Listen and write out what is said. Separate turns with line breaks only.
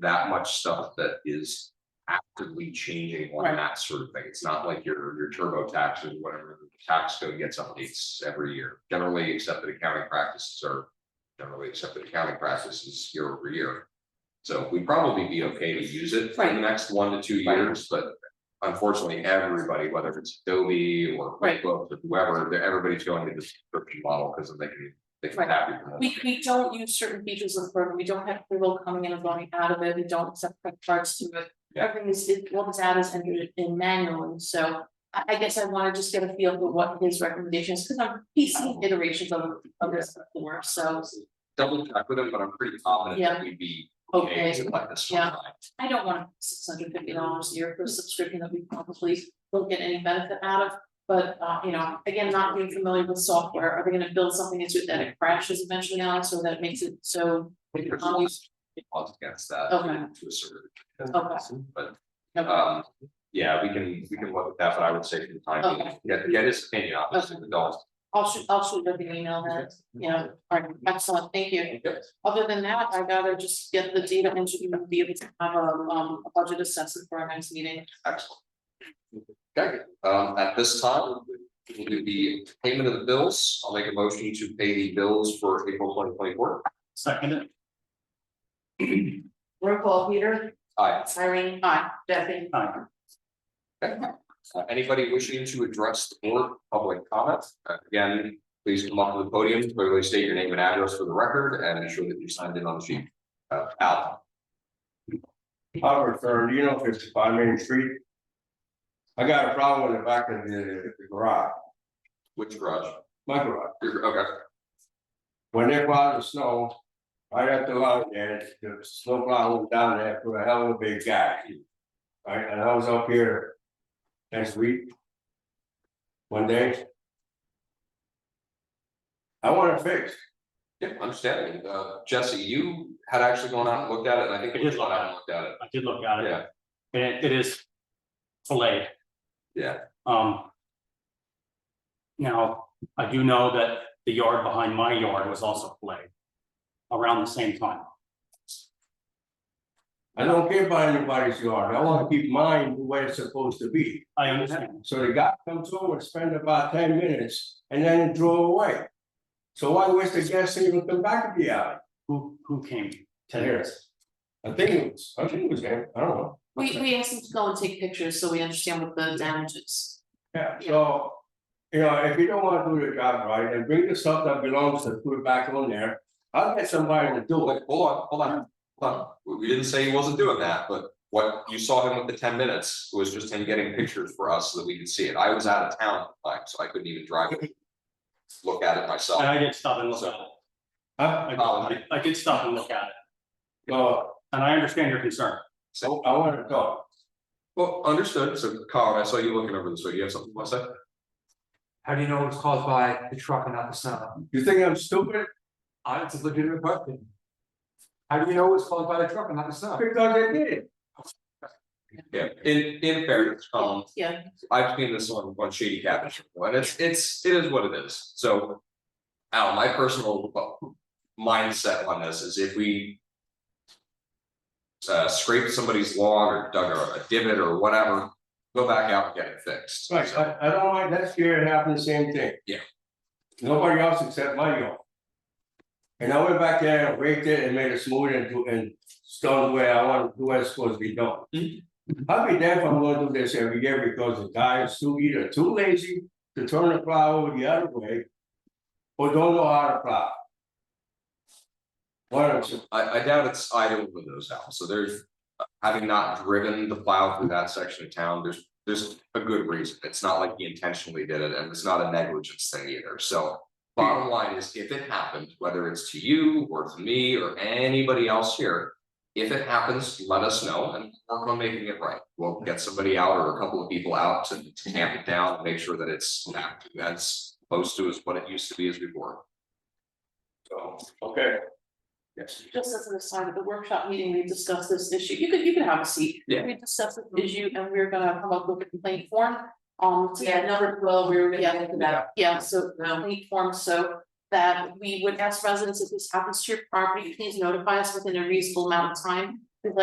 that much stuff that is actively changing on
Right.
that sort of thing. It's not like your, your turbo taxes, whatever the tax code gets updates every year. Generally accepted accounting practices are generally accepted accounting practices year over year. So we'd probably be okay to use it for the
Right.
next one to two
Right.
years, but unfortunately, everybody, whether it's Adobe or
Right.
QuickBooks or whoever, they're, everybody's going to the subscription model because they can, they can
Right.
tap you.
We we don't use certain features of Burton, we don't have payroll coming in and going out of it, we don't accept credit cards to it.
Yeah.
Everything is, it- all the data is entered in manually, so I I guess I wanna just get a feel for what his recommendations, cause I'm piecing iterations of of this before, so.
Double check with them, but I'm pretty confident that we'd be okay
Okay.
to let this one
Yeah.
ride.
I don't want six hundred fifty dollars a year for a subscription that we probably won't get any benefit out of. But uh, you know, again, not being familiar with software, are they gonna build something into it that it crashes eventually on, so that it makes it so,
There's
Um,
always laws against that
Okay.
to a certain
Okay.
extent, but
okay,
um, yeah, we can, we can look at that, but I would say for the time being,
Okay.
get, get his opinion, obviously, the dollars.
I'll shoot, I'll shoot you an email then. Yeah, all right, excellent, thank you. Other than that, I gotta just get the data engineer and be able to have a um a budget assessment for our next meeting.
Excellent. Okay, um, at this time, we'll do the payment of the bills. I'll make a motion to pay the bills for April twenty twenty four.
Second it,
Roll call, Peter,
Aye.
Irene,
Aye,
Jeffy,
aye,
Okay. Uh, anybody wishing to address the board, public comment, Uh, again, please come up to the podium, clearly state your name and address for the record and ensure that you signed in on the sheet. Uh, Al,
Albert, sir, do you know fifty-five Main Street? I got a problem with the back of the the garage,
which garage?
my garage,
Your- Okay,
when they plow the snow. Right at the line there, the snow plow went down there for a hell of a big guy. Right, and I was up here. Next week. One day. I want it fixed,
yeah, understanding. Uh, Jesse, you had actually gone out and looked at it, and I think
I
you
did
had
look
gone out
at
and looked at it.
I did look at it,
Yeah,
and it- it is filleted,
yeah,
um. Now, I do know that the yard behind my yard was also filleted around the same time.
I don't care about anybody's yard, I wanna keep mine the way it's supposed to be.
I understand,
So the guy comes over, spend about ten minutes, and then he drove away. So why waste the gas even come back to the alley?
who, who came?
Ten years. I think it was, I think it was him, I don't know.
we we asked them to go and take pictures so we understand what the damage is.
Yeah, so, you know, if you don't wanna do your job right, and bring the stuff that belongs to put it back on there, I'll get somebody to
Oh,
do it.
wait, hold on, hold on, hold on, we we didn't say he wasn't doing that, but what you saw him with the ten minutes was just him getting pictures for us so that we could see it. I was out of town, at the time, so I couldn't even drive. it. Look at it myself.
And I did stop and look at it,
Huh?
I, I- I did stop and look at
Oh.
it,
So,
and I understand your concern.
I I wanna talk,
Well, understood, so Colin, I saw you looking over this, so you have something to say?
How do you know it was caused by the truck and not the snow?
you think I'm stupid?
I, Uh, it's a legitimate question. How do you know it was caused by the truck and not the snow?
Because I did it.
Yeah, in in fairness, Colin,
Yeah,
I've seen this on on Shady Cabin, and it's it's, it is what it is, so. Al, my personal uh, mindset on this is if we. Uh, scrape somebody's lawn or dug a a divot or whatever, go back out and get it fixed.
Right, I I don't like, last year it happened the same thing.
Yeah.
Nobody else except my yard. And I went back there and raked it and made it smooth and do and stone where I want, the way it's supposed to be done. I'll be damned if I'm gonna do this every year because the guy is too either too lazy to turn the plow over the other way. Or don't know how to plow. One of two,
I I doubt it's either one of those, Al, so there's, having not driven the plow through that section of town, there's, there's a good reason. It's not like he intentionally did it, and it's not a negligence thing either, so. Bottom line is, if it happened, whether it's to you or to me or anybody else here. If it happens, let us know and work on making it right. We'll get somebody out or a couple of people out to to tamp it down, and make sure that it's not, that's close to as what it used to be as before.
so, okay,
Yes.
just as an aside, at the workshop meeting, we discussed this issue, you could you could have a seat.
Yeah.
We discussed this issue and we're gonna come up with a complaint form, um, to get number
well, we were
Yeah.
gonna get to that.
Yeah, so now we form so that we would ask residents if this happens to your property, please notify us within a reasonable amount of time.